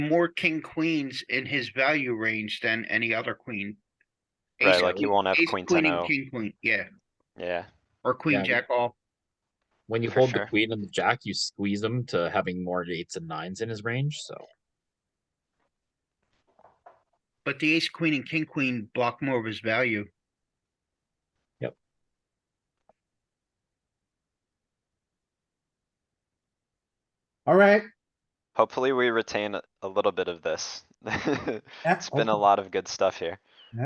more king queens in his value range than any other queen. Right, Ace like you queen- won't have ace queen oh. and 10-0. King queen, yeah, Yeah, or queen Yeah. jack off. When you For hold sure. the queen and the jack, you squeeze him to having more eights and nines in his range. So But the ace, queen and king queen block more of his value. Alright, hopefully we retain a- a little bit of this. It's been a lot of good stuff here.